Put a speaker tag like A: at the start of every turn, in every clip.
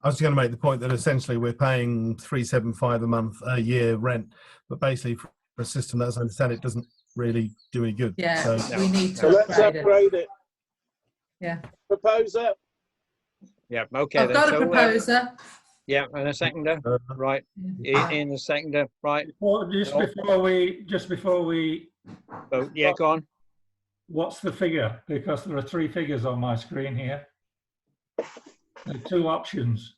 A: I was going to make the point that essentially we're paying three seven five a month a year rent, but basically for a system that, as I understand it, doesn't really do any good.
B: Yeah,
A: So,
B: we need
C: So
B: to
C: let's
B: upgrade it.
C: upgrade it.
B: Yeah.
C: Propose that.
D: Yeah, okay.
B: I've
D: then.
B: got a
D: So, uh,
B: proposer.
D: Yeah, and a seconder,
A: uh,
D: right, I- in the seconder, right,
E: Well, just
D: No.
E: before we, just before we,
D: vote, yeah, go on.
E: what's the figure? Because there are three figures on my screen here. There are two options.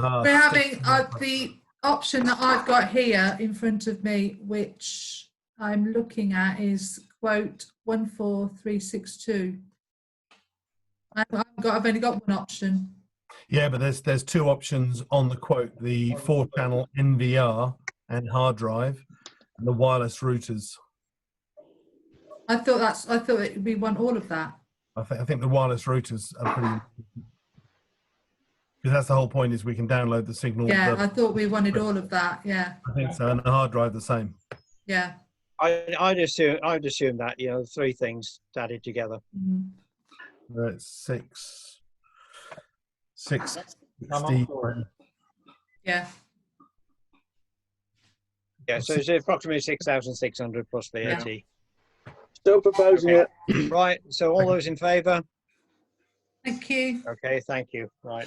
A: ah,
B: We're
A: six-
B: having uh, the option that I've got here in front of me, which I'm looking at is quote 14362. I've I've got, I've only got one option.
A: Yeah, but there's there's two options on the quote: the four-channel NVR and hard drive, and the wireless routers.
B: I thought that's, I thought it, we want all of that.
A: I think I think the wireless routers are pretty. Because that's the whole point is we can download the signal.
B: Yeah,
A: the-
B: I thought we wanted all of that. Yeah,
A: I think so, and the hard drive the same.
B: yeah.
D: I, I'd assume, I'd assume that, you know, three things added together.
B: Mhm.
A: Uh, it's six, six
E: I'm
A: sixty.
E: up for it.
B: Yeah,
D: Yeah, so it's approximately six thousand six hundred plus
B: Yeah.
D: VAT.
C: Still proposing it.
D: Right, so all those in favour?
B: thank you.
D: Okay, thank you, right.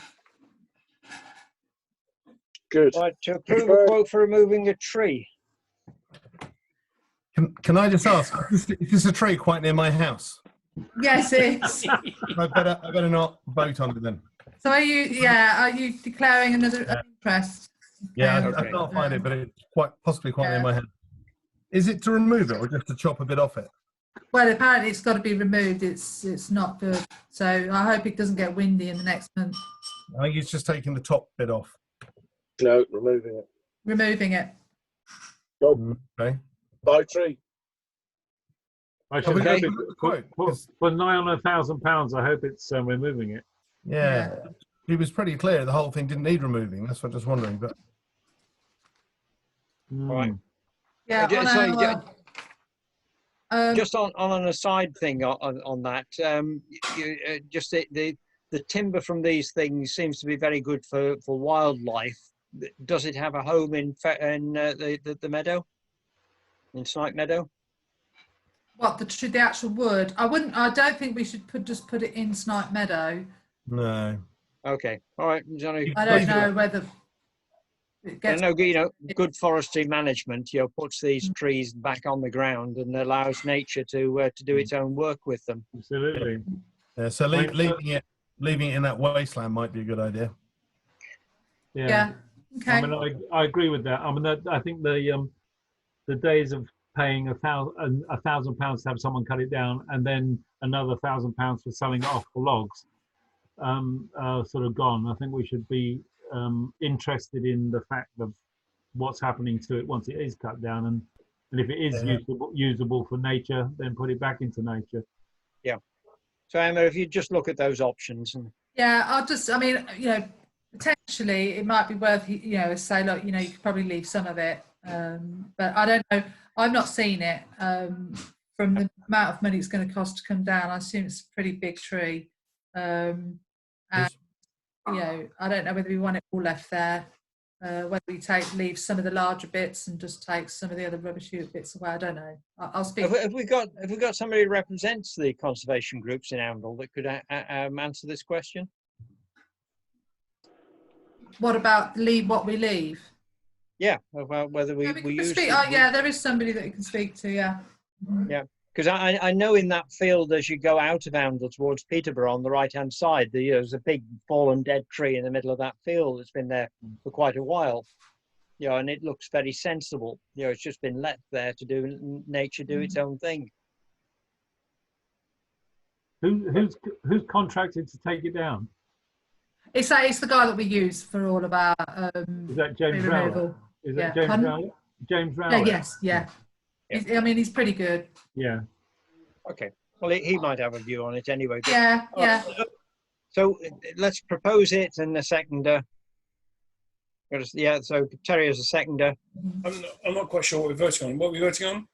C: Good.
D: Right, to approve a quote for removing a tree.
A: Can, can I just ask? Is this, is this a tree quite near my house?
B: Yes, it's,
A: I better I better not vote on it then.
B: so are you, yeah, are you declaring another
A: Yeah.
B: interest?
A: Yeah, I, I
D: Okay.
A: can't find it, but it's quite possibly quite
B: Yeah.
A: near my house. Is it to remove it or just to chop a bit off it?
B: Well, apparently it's got to be removed. It's it's not good. So I hope it doesn't get windy in the next month.
A: I think it's just taking the top bit off.
C: No, removing it.
B: Removing it.
A: Okay.
C: By tree.
F: I
A: Are
F: should
A: we
D: Okay.
F: hope
A: going
F: it,
A: to
F: for,
A: quote?
F: for,
A: 'Cause-
F: for nigh on a thousand pounds, I hope it's um, removing it.
A: Yeah. He was pretty clear the whole thing didn't need removing. That's what I was wondering. But
D: Right.
F: Mm.
B: Yeah.
D: ju-
B: on
D: sorry,
B: our-
D: ju-
B: um,
D: Just on, on an aside thing on, on, on that, um, you, uh, just the, the, the timber from these things seems to be very good for, for wildlife. Th- Does it have a home in, fe- in uh, the, the, the meadow? In Snipe Meadow?
B: what the tr- the actual wood? I wouldn't. I don't think we should put just put it in Snipe Meadow.
A: no.
D: Okay, all right. there's only-
B: I don't know whether it
D: I
B: gets.
D: know, you know, good forestry management, you know, puts these
B: Mm.
D: trees back on the ground and allows nature to, uh,
B: Mm.
D: to do its own work with them.
F: Absolutely.
A: Yeah, so lea-
F: Right.
A: leaving it leaving it in that wasteland might be a good idea.
F: Yeah.
B: Yeah.
F: I
B: Okay.
F: mean, I, I agree with that. I mean, that, I think the um, the days of paying a thousand a thousand pounds to have someone cut it down and then another thousand pounds for selling it off for logs, um, are sort of gone. I think we should be um, interested in the fact of what's happening to it once it is cut down, and and if it is
A: Yeah.
F: usable usable for nature, then put it back into nature.
D: So Emma, if you just look at those options and
B: Yeah. I'll just. I mean, you know, potentially it might be worth you know say look, you know, you could probably leave some of it, um, but I don't know. I've not seen it. Um, from the amount of money it's going to cost to come down, I assume it's a pretty big tree. Um, and, you know, I don't know whether we want it all left there, uh, whether we take leave some of the larger bits and just take some of the other rubbish shoot bits away. I don't know. I, I'll speak.
D: have, we- have we got, have we got somebody who represents the conservation groups in Oundle that could uh, uh, um, answer this question?
B: What about leave what we leave?
D: Yeah, about whether we,
B: Yeah,
D: we
B: we can
D: use.
B: speak. Oh, yeah, there is somebody that you can speak to. Yeah. Mhm.
D: Because I, I- I know in that field, as you go out of Oundle towards Peterborough on the right-hand side, the- there's a big fallen dead tree in the middle of that field that's been there for quite a while. You know, and it looks very sensible. You know, it's just been left there to do n- nature do
B: Mm.
D: its own thing.
F: Who, who's who's contracted to take it down?
B: It's that it's the guy that we use for all of our
F: Is
B: um,
F: that James Rowley?
B: removal.
F: Is
B: Yeah.
F: that James
B: Pardon?
F: Rowley? James
B: Yeah,
F: Rowley?
B: yes, yeah.
D: Yeah.
B: He's- I mean, he's pretty good.
F: Yeah.
D: Okay. Well, he, he might have a view on it anyway. but-
B: Yeah,
D: All
B: yeah.
D: right, So uh, let's propose it and the seconder. Gotta s- Yeah, so Terry is a seconder
G: I'm not, I'm not quite sure what we're voting on. What are we voting on?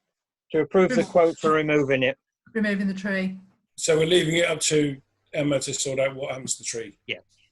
D: to approve the quote for removing it.
B: Removing the tree.
G: So we're leaving it up to Emma to sort out what happens to the tree.
D: Yeah,